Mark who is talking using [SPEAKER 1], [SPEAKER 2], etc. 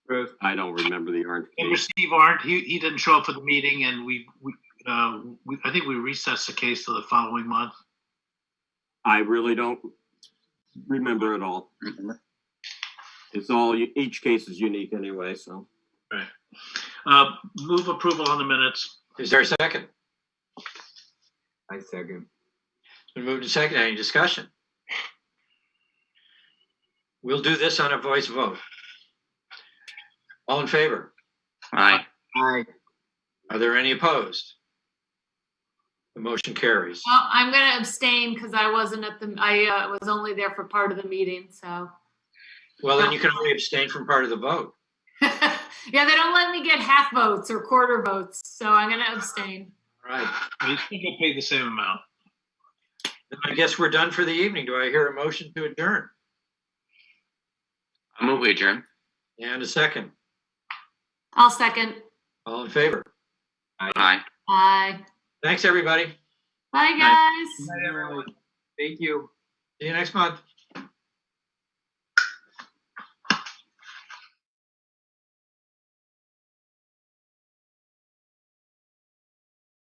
[SPEAKER 1] I don't remember the
[SPEAKER 2] Remember
[SPEAKER 1] RFP.
[SPEAKER 2] Steve Arndt, he, he didn't show up for the meeting and we, we, uh, we, I think we recessed the case to the following month.
[SPEAKER 1] I really don't remember it all. It's all, each case is unique anyway, so.
[SPEAKER 2] Uh, move approval on the minutes.
[SPEAKER 3] Is there a second?
[SPEAKER 4] I second.
[SPEAKER 3] It's been moved to second. Any discussion? We'll do this on a voice vote. All in favor?
[SPEAKER 5] Aye.
[SPEAKER 4] Aye.
[SPEAKER 3] Are there any opposed? The motion carries.
[SPEAKER 6] Well, I'm going to abstain because I wasn't at the, I uh, was only there for part of the meeting, so.
[SPEAKER 3] Well, then you can only abstain from part of the vote.
[SPEAKER 6] Yeah, they don't let me get half votes or quarter votes, so I'm going to abstain.
[SPEAKER 3] All right.
[SPEAKER 2] We think we paid the same amount.
[SPEAKER 3] Then I guess we're done for the evening. Do I hear a motion to adjourn?
[SPEAKER 5] I move we adjourn.
[SPEAKER 3] And a second.
[SPEAKER 6] I'll second.
[SPEAKER 3] All in favor?
[SPEAKER 5] Aye.
[SPEAKER 6] Aye.
[SPEAKER 3] Thanks, everybody.
[SPEAKER 6] Bye, guys.
[SPEAKER 4] Thank you.
[SPEAKER 3] See you next month.